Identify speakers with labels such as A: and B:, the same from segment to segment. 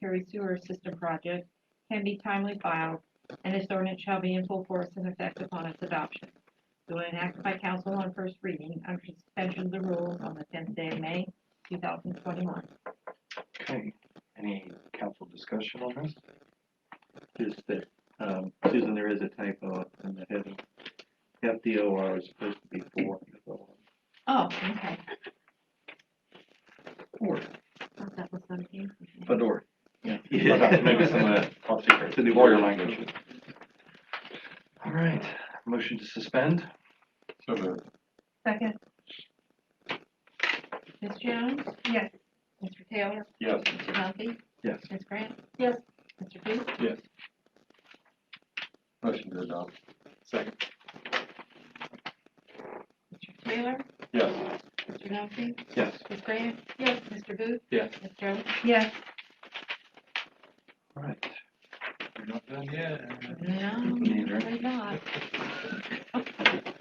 A: sanitary sewer system project can be timely filed, and this ordinance shall be in full force and effect upon its adoption. It will enacted by council on first reading under suspension of the rules on the tenth day of May, two thousand twenty-one.
B: Okay, any council discussion on this?
C: Just that, um, Susan, there is a typo in the heading. F D O R is supposed to be four.
A: Oh, okay,
C: Four.
A: thought that was something.
C: Fedor.
B: Okay, Maybe some,
C: Yeah.
B: uh, I'll take her
C: To the
B: lawyer
C: word.
B: language. All right, motion to suspend?
D: So moved.
E: Second,
A: Ms. Jones?
E: yes.
A: Mr. Taylor?
D: Yes.
A: Mr. Duffy?
B: Yes.
A: Ms. Grant?
E: Yes.
A: Mr. Booth?
D: Yes. Motion to adopt. Second.
A: Mr. Taylor?
D: Yes.
A: Mr. Duffy?
B: Yes.
A: Ms. Grant? Yes. Mr. Booth?
D: Yes.
A: Ms. Jones?
E: Yes.
B: All right. We're not done yet.
A: No,
B: Neither.
A: we're not.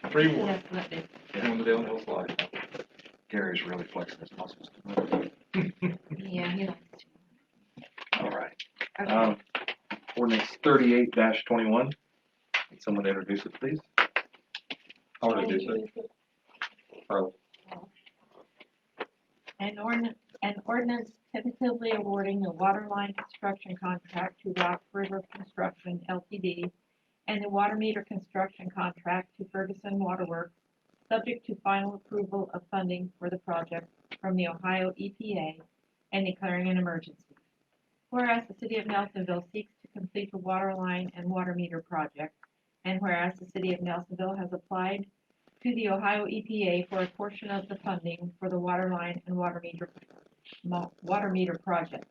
D: Three more.
A: Yes, let me-
D: Down the downhill slide.
B: Gary's really flexing his muscles.
A: Yeah, he likes to.
B: All right,
A: Okay.
B: um, ordinance thirty-eight twenty-one. Someone introduce it, please.
D: I'll introduce it. Oh,
A: An ordinance, an ordinance tentatively awarding the water line construction contract to Rock River Construction LTD and the water meter construction contract to Ferguson Waterworks, subject to final approval of funding for the project from the Ohio EPA and declaring an emergency. Whereas the city of Nelsonville seeks to complete the water line and water meter project, and whereas the city of Nelsonville has applied to the Ohio EPA for a portion of the funding for the water line and water meter, mo- water meter project.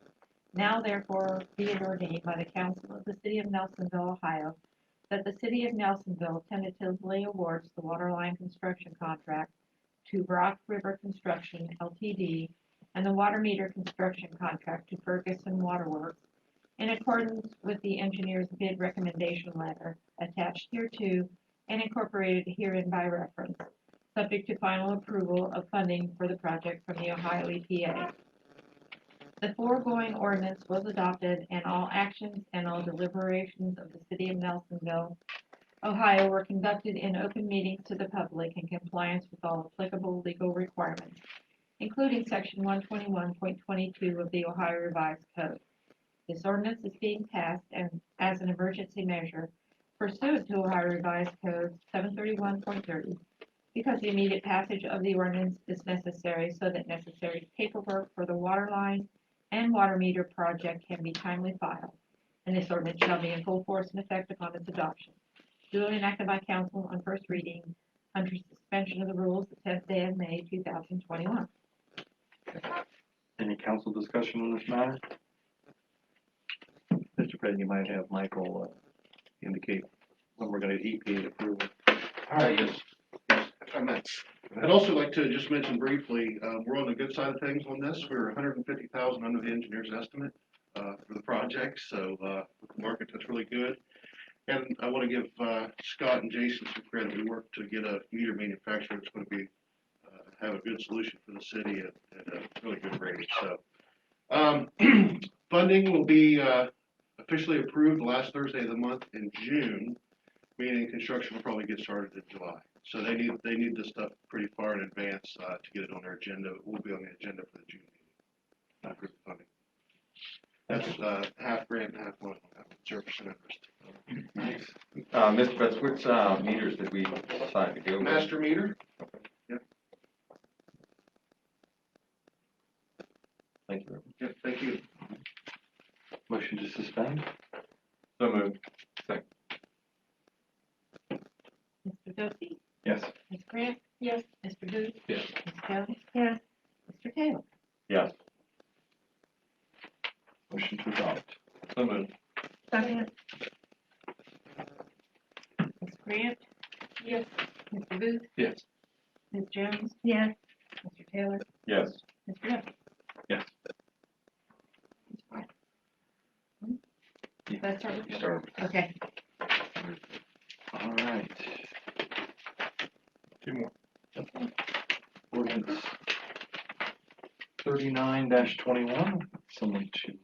A: Now therefore be it ordained by the council of the city of Nelsonville, Ohio, that the city of Nelsonville tentatively awards the water line construction contract to Rock River Construction LTD and the water meter construction contract to Ferguson Waterworks in accordance with the engineer's bid recommendation letter attached hereto and incorporated herein by reference, subject to final approval of funding for the project from the Ohio EPA. The foregoing ordinance was adopted and all actions and all deliberations of the city of Nelsonville, Ohio were conducted in open meetings to the public in compliance with all applicable legal requirements, including section one twenty-one point twenty-two of the Ohio Revised Code. This ordinance is being passed and as an emergency measure pursuant to Ohio Revised Code seven thirty-one point thirty, because the immediate passage of the ordinance is necessary so that necessary paperwork for the water line and water meter project can be timely filed, and this ordinance shall be in full force and effect upon its adoption. Duly enacted by council on first reading under suspension of the rules the tenth day of May two thousand twenty-one.
B: Any council discussion on this matter?
C: Mr. President, you might have Michael uh, indicate when we're gonna EPA approval.
B: All right,
F: Yes, yes, if I may. I'd also like to just mention briefly, uh, we're on the good side of things on this. We're hundred and fifty thousand under the engineer's estimate, uh, for the project, so, uh, with the market, that's really good. And I want to give, uh, Scott and Jason some credit. We worked to get a meter manufacturer that's going to be, uh, have a good solution for the city at, at a really good rate, so. Um, funding will be, uh, officially approved last Thursday of the month in June meaning construction will probably get started in July. So they need, they need this stuff pretty far in advance, uh, to get it on their agenda, it will be on the agenda for the June meeting. Not group funding. That's, uh, half grant and half loan, zero percent interest.
D: Uh, Mr. Betts, which, uh, meters did we decide to go with?
F: Master meter,
D: Thank you.
F: yeah, thank you.
B: motion to suspend?
D: So moved.
A: Mr. Duffy,
B: Yes.
A: Ms. Grant? Yes. Mr. Booth?
D: Yes.
A: Ms. Jones?
E: Yes.
A: Mr. Taylor?
D: Yes.
B: Motion to adopt?
D: So moved.
E: Second,
A: Ms. Grant?
E: Yes.
A: Mr. Booth?
D: Yes.
A: Ms. Jones?
E: yes.
A: Mr. Taylor?
D: Yes.
A: Mr. Duffy?
B: Yes.
A: That's right.
B: You start.
A: Okay.
B: All right.
D: Two more.
B: Ordinance thirty-nine twenty-one, someone should